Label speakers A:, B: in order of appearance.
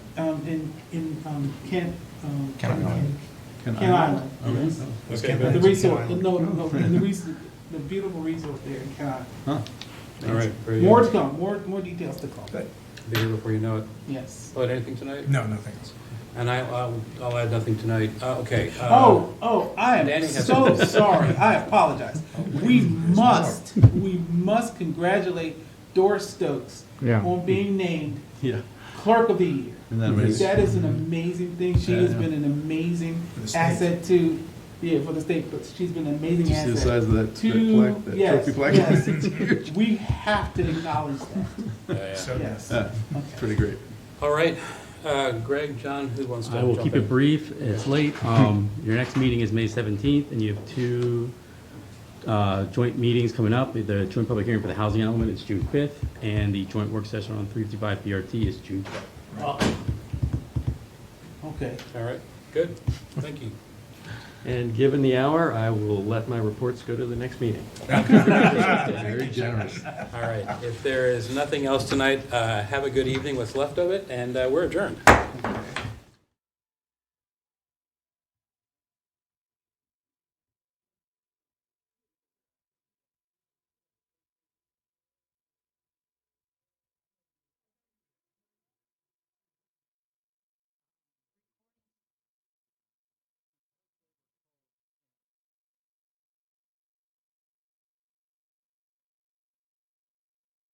A: um, in, in um, Kent. um,
B: Kent Island.
A: Kent Island.
C: Okay.
D: Okay,
A: The
D: but-
A: resort, no, no, the resort, the beautiful resort there in Kent Island.
C: Huh. All right. very good.
A: More to come, more, more details to come.
D: Good.
C: Be here before you know it.
A: Yes.
C: Lloyd, anything tonight?
D: No, nothing else.
C: And I, I'll, I'll add nothing tonight. Uh, okay. uh,
A: Oh, oh, I am
C: Danny has
A: so
C: something.
A: sorry. I apologize. We must, we must congratulate Doris Stokes
E: Yeah.
A: on being named
F: Yeah.
A: Clerk of the Year.
F: And that was-
A: That is an amazing thing. She has
F: Yeah.
A: been an amazing
D: For the state.
A: asset to, yeah, for the state, but she's been an
F: Did
A: amazing
F: you see the size
A: asset.
F: of that, that
A: Two-
F: plaque, that
A: yes,
F: trophy plaque?
A: yes.
F: It's huge.
A: We have to acknowledge that.
C: yeah, yeah.
D: So-
A: Yes.
F: Yeah,
A: Okay.
F: Pretty great.
C: uh, All right. Uh, Greg, John, who wants to
G: I will
C: jump
G: keep
C: in?
G: it brief. It's late. Um, Your next meeting is May 17th, and you have two uh, joint meetings coming up. The joint public hearing for the housing element is June 5th, and the joint work session on 355 BRT is June 12th.
A: Okay.
C: All right. Good. Thank you.
G: And given the hour, I will let my reports go to the next meeting.
F: Very generous.
C: All right. If there is nothing else tonight, uh, have a good evening, what's left of it, and uh, we're adjourned.